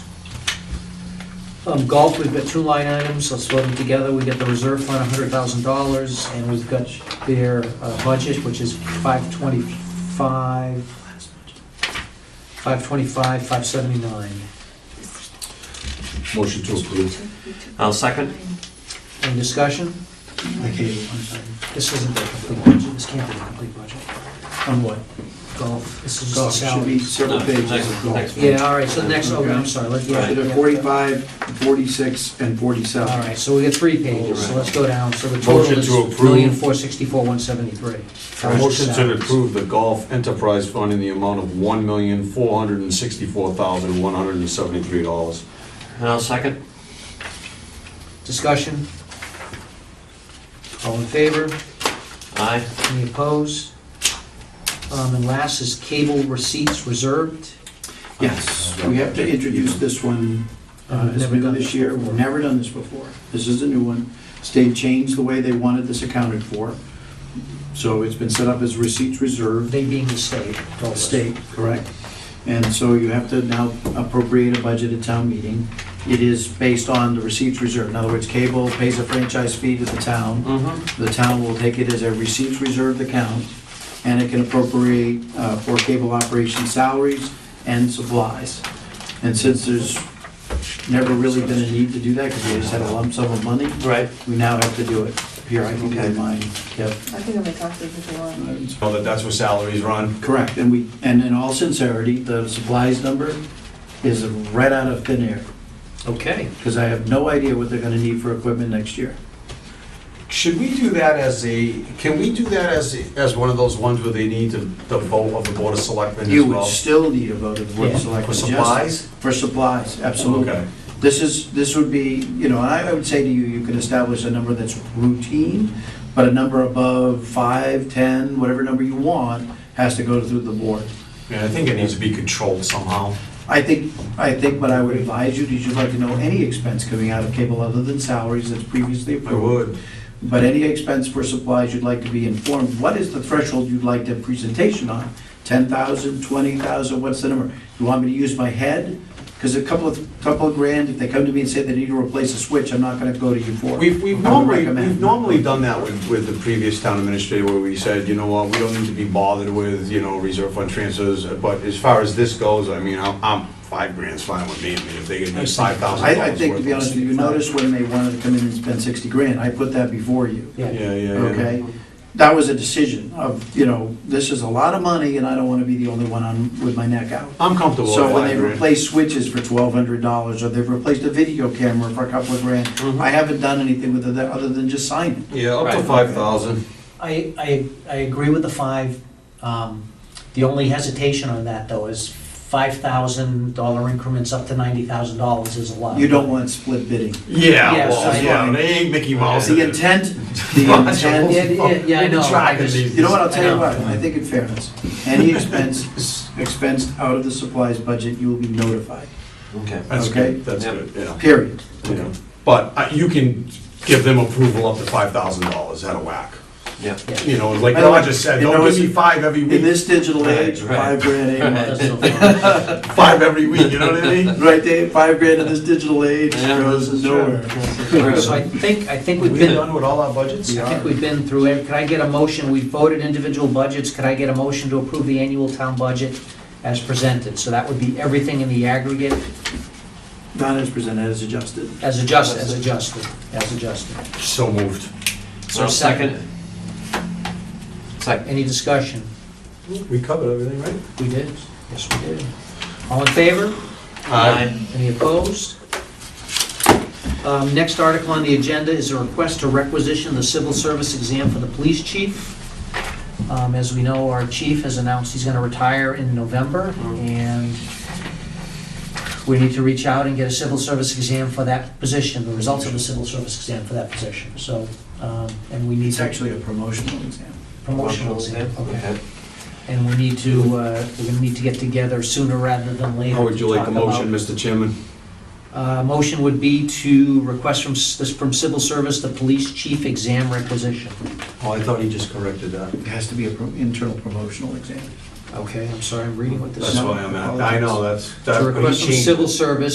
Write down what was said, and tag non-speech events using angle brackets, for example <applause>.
Um, golf, we've got two line items, let's load them together. We got the reserve fund, hundred thousand dollars, and we've got their uh, budget, which is five twenty-five, five twenty-five, five seventy-nine. Motion to approve. I'll second. Any discussion? Okay, one second. This isn't the complete budget, this can't be the complete budget. On what? Golf, this is Golf, just the should be salary. several No, pages next- of golf. next one. Yeah, all right, so the next, oh, I'm sorry, let's, yeah. Right. There yeah. are 45, 46, and All 47. right, so we got three pages, so Right. let's go down, so the Motion total is to approve. million four sixty-four, one seventy-three. Motion to approve the Golf Enterprise Fund in the amount of one million, four hundred and sixty-four thousand, one hundred and seventy-three dollars. And I'll second. Discussion? All in favor? Aye. Any opposed? Um, and last is cable receipts reserved. Yes, we have to introduce this one. Uh, Uh, It's never new done this this year, before. we've never done this before. This is a new one. State changed the way they wanted this accounted for. So it's been set up as receipts reserved, They being the state. told us. state, correct? And so you have to now appropriate a budget at town meeting. It is based on the receipts reserved. In other words, cable pays a franchise fee to the town. Mm-hmm. The town will take it as a receipts reserved account, and it can appropriate uh, for cable operation salaries and supplies. And since there's never really been a need to do that, because we just had a lump sum of money, Right. we now have to do it. Here, I can get Okay. mine, yep. I think I'm gonna talk to you before. So that that's where salaries run? Correct, and we, and in all sincerity, the supplies number is right out of thin air, Okay. because I have no idea what they're gonna need for equipment next year. Should we do that as a, can we do that as, as one of those ones where they need the the vote of the Board of Selectmen as You would well? still need a vote of the Board Yeah, of Selectmen. For yes. supplies? For supplies, absolutely. Okay. This is, this would be, you know, I I would say to you, you can establish a number that's routine, but a number above five, 10, whatever number you want, has to go through the board. Yeah, I think it needs to be controlled somehow. I think, I think what I would advise you, is you'd like to know any expense coming out of cable other than salaries that's previously I approved. would. But any expense for supplies, you'd like to be informed, what is the threshold you'd like the presentation on? 10,000, 20,000, what's the number? You want me to use my head? Because a couple of, couple of grand, if they come to me and say they need to replace a switch, I'm not gonna go to you for it. We've, I we've would normally, recommend. we've normally done that with, with the previous town administrator where we said, you know what, we don't need to be bothered with, you know, reserve fund transfers. But as far as this goes, I mean, I'm, I'm, five grand's fine with me. I mean, if they could I do see. five thousand dollars I, I think, to be honest with you, you notice when they wanted to come in and spend 60 grand, I put that before you, Yeah, yeah, yeah. okay? That was a decision of, you know, this is a lot of money and I don't wanna be the only one on, with my neck out. I'm comfortable with So when five they grand. replace switches for twelve hundred dollars, or they've replaced a video camera for a couple of grand, mm-hmm. I haven't done anything with it tha- other than just sign it. Yeah, up to Right. five thousand. I, I, I agree with the five. Um, the only hesitation on that though is five thousand dollar increments up to ninety thousand dollars is a lot. You don't want split bidding. Yeah, Yes, I- well, yeah, they ain't Mickey Mouse. The intent, <laughs> the <laughs> Yeah, intent, yeah, yeah, I We've been know. I tracking just- these. you know what, I'll tell I you know. what, I think in fairness, any expense, expensed out of the supplies budget, you will be notified, Okay. That's Okay. good, that's Yeah. good, yeah. period. yeah. But uh, you can give them approval up to five thousand dollars out of whack. Yeah. You know, like I know, Roger said, you know, don't give it's- me five every In week, this digital age, Right, five right. grand ain't <laughs> much. That's so far. five every week, you know what I <laughs> mean? Right, Dave, five grand in this digital age Yeah, goes this is nowhere. So I think, I think we've been, I with all our budgets? think we've been through, it. could I get a motion, we voted individual budgets, could I get a motion to approve the annual town budget as presented? So that would be everything in the aggregate Not as presented, as adjusted. as adjusted, as adjusted, as adjusted. So moved. So I'll second. Second. Any discussion? We covered everything, right? We did? Yes, we did. All in favor? Uh, Aye. Any opposed? Um, Next article on the agenda is a request to requisition the civil service exam for the police chief. Um, As we know, our chief has announced he's going to retire in November, and we need to reach out and get a civil service exam for that position, the results of the civil service exam for that position. So, um, and we need It's to actually a promotional exam. promotional exam. Okay. And we need to, uh, we're going to need to get together sooner rather than later. How would you to like a talk about- motion, Mr. Chairman? uh, Motion would be to request from, s- this from civil service, the police chief exam requisition. Oh, I thought he just corrected that. It has to be an internal promotional exam. Okay, I'm sorry, I'm reading what this That's is. No, why I'm at, I know, Oh, that's, that's. To request from civil service,